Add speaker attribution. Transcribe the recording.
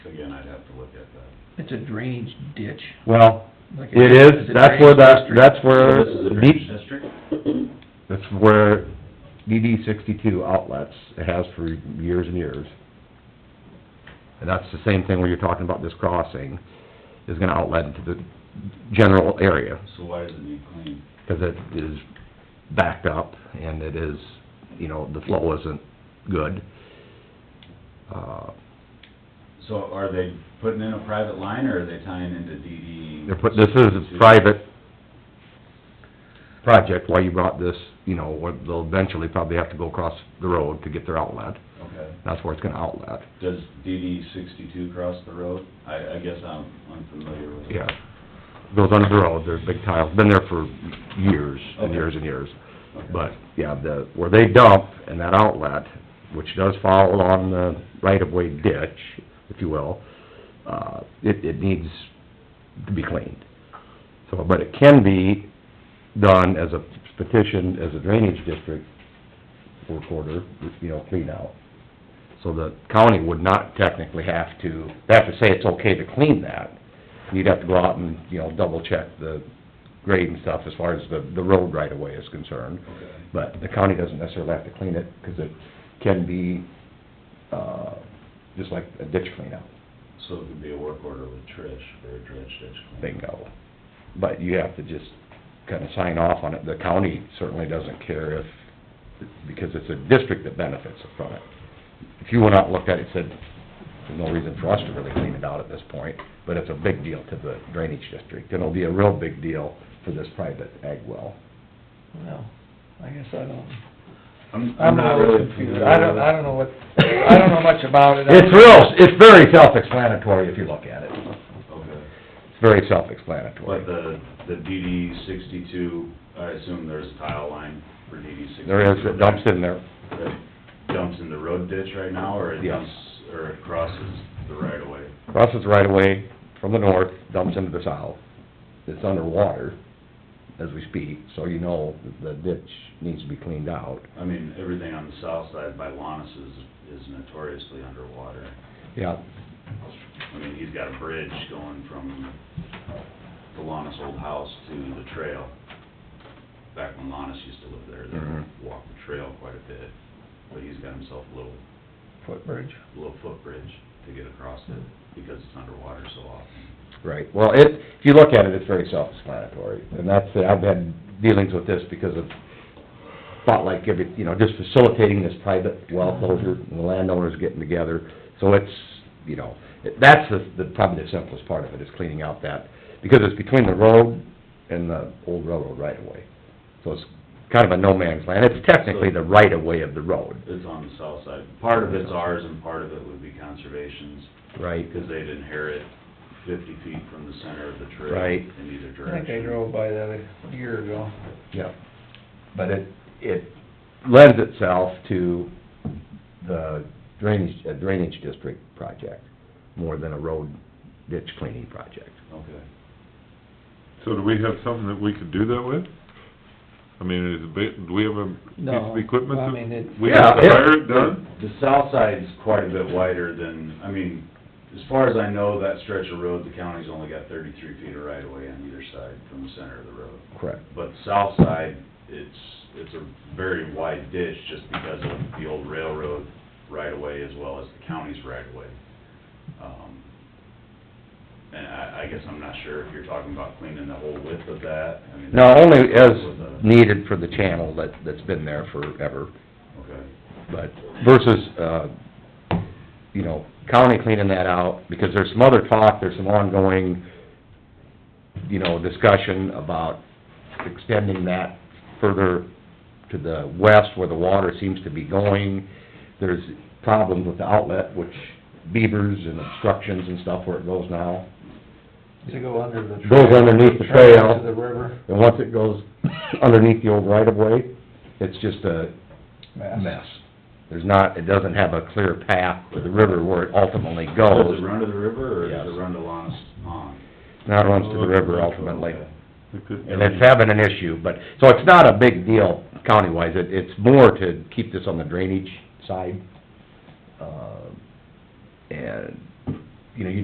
Speaker 1: again, I'd have to look at that.
Speaker 2: It's a drainage ditch.
Speaker 3: Well,
Speaker 2: like a-
Speaker 3: it
Speaker 2: it's
Speaker 3: is,
Speaker 2: a
Speaker 3: that's where
Speaker 2: drainage district.
Speaker 3: that, that's where
Speaker 1: So This is a
Speaker 3: deep,
Speaker 1: drainage district?
Speaker 3: that's where DD sixty-two outlets, it has for years and years. And that's the same thing where you're talking about this crossing, is gonna outlet into the general area,
Speaker 1: So why does it need clean?
Speaker 3: because it is backed up, and it is, you know, the flow isn't good. Uh,
Speaker 1: So are they putting in a private line, or are they tying into E? DD?
Speaker 3: They're put, this is a private project, why you brought this, you know, where they'll eventually probably have to go across the road to get their outlet.
Speaker 1: Okay.
Speaker 3: That's where it's gonna outlet,
Speaker 1: Does DD sixty-two cross the road? I, I guess I'm unfamiliar with it.
Speaker 3: yeah. Goes under the road, there's big tiles, been there for years and years and years.
Speaker 1: Okay.
Speaker 3: But, yeah, the, where they dump and that outlet, which does fall along the right-of-way ditch, if you will, uh, it, it needs to be cleaned. So, but it can be done as a petition, as a drainage district for quarter, you know, clean out. So the county would not technically have to, they have to say it's okay to clean that. You'd have to go out and, you know, double-check the grade and stuff as far as the, the road right-of-way is concerned.
Speaker 1: Okay.
Speaker 3: But the county doesn't necessarily have to clean it, because it can be, uh, just like a ditch cleanout,
Speaker 1: So it could be a work order with Trish, for a dredge ditch clean.
Speaker 3: bingo. But you have to just kinda sign off on it. The county certainly doesn't care if, because it's a district that benefits from it. If you went out and looked at it, said, there's no reason for us to really clean it out at this point, but it's a big deal to the drainage district, and it'll be a real big deal for this private ag well.
Speaker 2: Well, I guess I don't,
Speaker 1: I'm
Speaker 2: I'm a
Speaker 1: not
Speaker 2: little
Speaker 1: really
Speaker 2: confused, I don't,
Speaker 1: familiar
Speaker 2: I don't know what, I don't know much about it.
Speaker 3: It's real, it's very self-explanatory if you look at it.
Speaker 1: with it. Okay.
Speaker 3: It's very
Speaker 1: But
Speaker 3: self-explanatory.
Speaker 1: the, the DD sixty-two, I assume there's a tile line for DD sixty-two?
Speaker 3: There is, it dumps in there,
Speaker 1: That dumps in the road ditch right now, or it
Speaker 3: Yeah.
Speaker 1: dumps, or it crosses the right of way?
Speaker 3: crosses right away from the north, dumps into the south. It's underwater as we speak, so you know that the ditch needs to be cleaned out.
Speaker 1: I mean, everything on the south side by Lannis is, is notoriously underwater.
Speaker 3: Yeah,
Speaker 1: I mean, he's got a bridge going from the Lannis old house to the trail. Back when Lannis used to live there,
Speaker 3: Mhm.
Speaker 1: they walked the trail quite a bit, but he's got himself a little,
Speaker 2: Footbridge.
Speaker 1: little footbridge to get across it, because it's underwater so often.
Speaker 3: right. Well, it, if you look at it, it's very self-explanatory. And that's, it. I've had dealings with this because of, thought like every, you know, just facilitating this private well closure and the landowners getting together. So it's, you know, it- that's the, the, probably the simplest part of it, is cleaning out that, because it's between the road and the old railroad right of way. So it's kind of a no man's land. It's technically the right of way of the road.
Speaker 1: It's on the south side. Part of it's ours and part of it would be conservation's,
Speaker 3: Right.
Speaker 1: because they'd inherit fifty feet from the center of the trail.
Speaker 3: Right.
Speaker 1: In either
Speaker 2: I think I
Speaker 1: direction.
Speaker 2: drove by that a year ago.
Speaker 3: Yeah, but it, it lends itself to the drainage, a drainage district project more than a road ditch cleaning project.
Speaker 1: Okay.
Speaker 4: So do we have something that we could do that with? I mean, is it, ba- do we have a piece
Speaker 2: No,
Speaker 4: of equipment
Speaker 2: I mean, it-
Speaker 4: that we have to
Speaker 3: Yeah, it-
Speaker 4: hire it done?
Speaker 1: The south side's quite a bit wider than, I mean, as far as I know, that stretch of road, the county's only got thirty-three feet of right of way on either side from the center of the road.
Speaker 3: Correct.
Speaker 1: But south side, it's, it's a very wide ditch just because of the old railroad right of way as well as the county's right of way. Um, And I, I guess I'm not sure if you're talking about cleaning the whole width of that, I mean.
Speaker 3: Now, only as
Speaker 1: With a-
Speaker 3: needed for the channel that, that's been there forever,
Speaker 1: Okay,
Speaker 3: but versus, uh, you know, county cleaning that out, because there's some other talk, there's some ongoing, you know, discussion about extending that further to the west where the water seems to be going. There's problems with the outlet, which beavers and obstructions and stuff where it goes now.
Speaker 2: To go under the.
Speaker 3: Goes underneath the trail.
Speaker 2: To the river.
Speaker 3: And once it goes underneath the old right-of-way, it's just a mess. There's not, it doesn't have a clear path to the river where it ultimately
Speaker 1: does
Speaker 3: goes.
Speaker 1: it run to the river or does
Speaker 3: Yes.
Speaker 1: it run to Lana's pond?
Speaker 3: Now it runs to the river ultimately.
Speaker 1: Okay.
Speaker 4: Like that?
Speaker 3: And it's having an issue, but, so it's not a big deal county-wise. It, it's more to keep this on the drainage side. Uh, And, you know, you